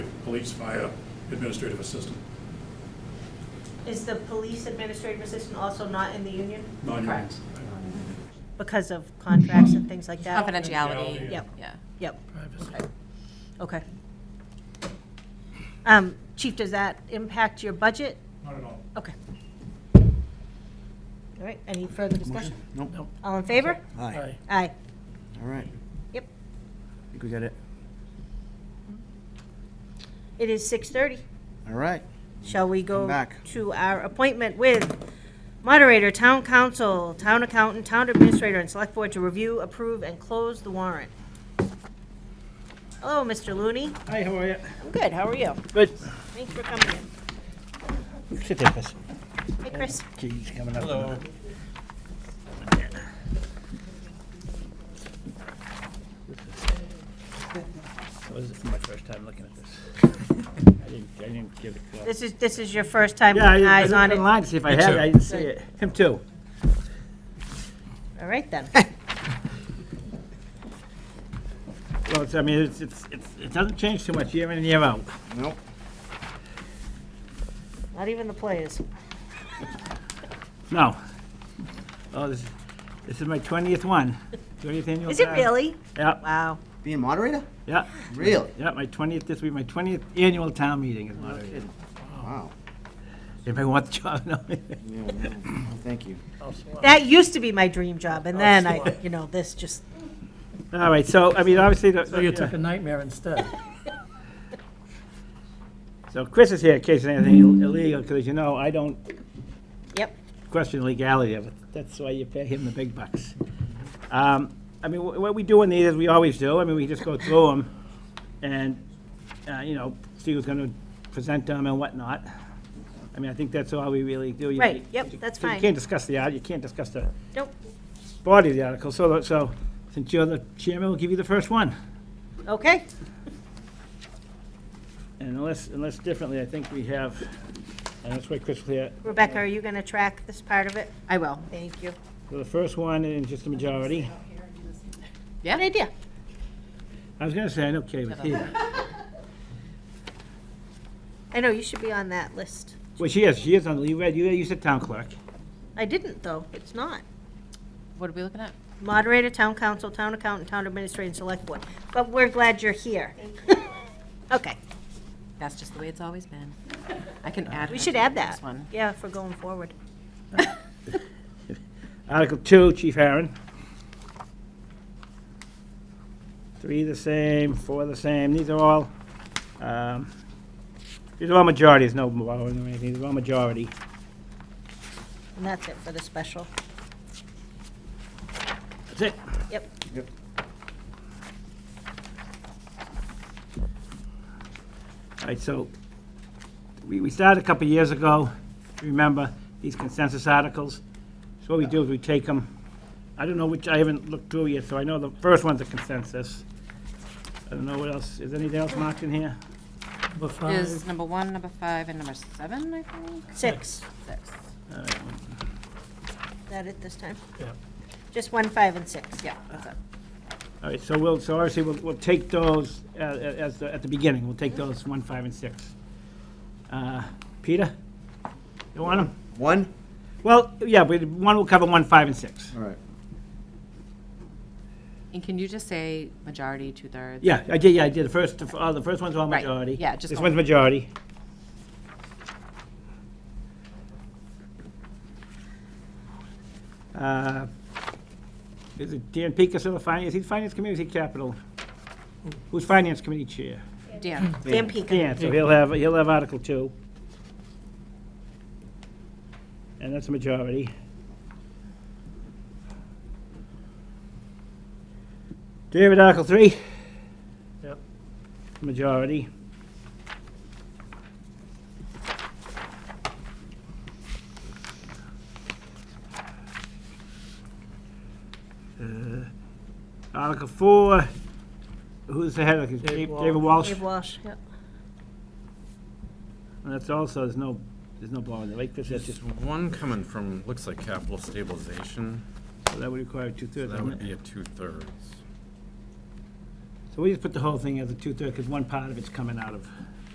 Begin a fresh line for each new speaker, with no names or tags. police via administrative assistant.
Is the police administrative assistant also not in the union?
Non-union.
Correct.
Because of contracts and things like that?
Confidentiality.
Confidentiality.
Yep.
Yeah.
Yep,
Okay.
okay. Um, Chief, does that impact your budget?
Not at all.
Okay. All right, any further discussion?
Nope.
All in favor?
Aye.
Aye.
All right.
Yep.
I think we got it.
It is 6:30.
All right.
Shall we
Come
go
back.
to our appointment with moderator, town council, town accountant, town administrator, and select board to review, approve, and close the warrant? Hello, Mr. Looney.
Hi, how are you?
I'm good, how are you?
Good.
Thanks for coming in.
Sit there, Chris.
Hey, Chris.
He's coming up. Hello.
This is my first time looking at this. I didn't, I didn't give it. uh,
This is, this is your first time
Yeah,
putting
I I
eyes on
looked
it.
online to see if I had it. I didn't see it. Him too.
All right, then.
Well, it's, I mean, it's, it's, it's- it doesn't change too much year in and year out. Nope.
Not even the players.
No. Oh, this, this is my twentieth one. Twentieth annual.
Is it
town.
really?
Yep,
Wow.
Being moderator?
yep,
Really?
yep. My twentieth, this will be my twentieth annual town meeting is moderated.
Wow.
Anybody want the job? No.
Yeah, no, Thank you.
That used to be my dream job,
Oh,
and then I, you know, this just,
All right, so, I mean, obviously. the-
So you took a nightmare instead.
So Chris is here in case there's anything illegal, because as you know, I don't
yep.
question legality of it. That's why you pay him the big bucks. Um, I mean, wh- what we do in these is we always do. I mean, we just go through them and, uh, you know, see who's going to present them and whatnot. I mean, I think that's all we really do. You-
Right, yep, that's
so
fine.
You can't discuss the, art- you can't discuss the
Nope.
body of the article, so, the- so since you're the chairman, we'll give you the first one.
Okay.
And unless, unless differently, I think we have, and that's why Chris will here.
Rebecca, are you going to track this part of it? I will. Thank you.
So the first one is just a majority.
Yeah.
Good idea.
I was gonna say, I know Kay was here.
I know, you should be on that list.
Well, she is, she is on, you read, you you said town clerk.
I didn't, though. It's not.
What are we looking at?
Moderator, town council, town accountant, town administrator, and select board. But we're glad you're here. Okay,
That's just the way it's always been. I can add.
we
her
should
to
add
this
that.
one.
Yeah, for going forward.
Article two, Chief Aaron. Three the same, four the same, these are all, um, these are all majorities, no borrowing or anything, these are all majority.
And that's it for the special.
That's it.
Yep.
Yep.
All right, so we, we started a couple years ago, remember, these consensus articles. So what we do is we take them, I don't know which, I haven't looked through yet, so I know the first one's a consensus. I don't know what else, is anything else marked in here?
Number
Is
five,
number one, number five, and number seven, I think?
Six.
Six.
All right,
Is that it this time?
Yep.
Just one, five, and six.
Yeah, that's it.
All right, so we'll, so obviously, we'll, we'll take those uh, as, the- at the beginning, we'll take those one, five, and six. Uh, Peter? You want them?
One?
Well, yeah, but one will cover one, five, and six.
All right.
And can you just say majority, two-thirds?
Yeah, I did, yeah, I did, the first, uh, the first one's all
Right,
majority.
yeah, just
This
all-
one's majority. Uh, Is it Dan Pecas on the finance, he's finance committee, or is he capital? Who's finance committee chair?
Dan,
Dan Pecan.
Dan, so he'll have, he'll have Article two. And that's a majority. David, Article three?
Yep.
Majority. Uh, Article four, who's the head of it?
Dave Walsh.
David Walsh?
Dave Walsh, yep.
And that's also, there's no, there's no bar in the lake, this is
There's
just,
just one coming from, looks like capital stabilization,
that would require
so
two-thirds,
that would
wouldn't
be
it?
a two-thirds.
So we just put the whole thing as a two-thirds, because one part of it's coming out of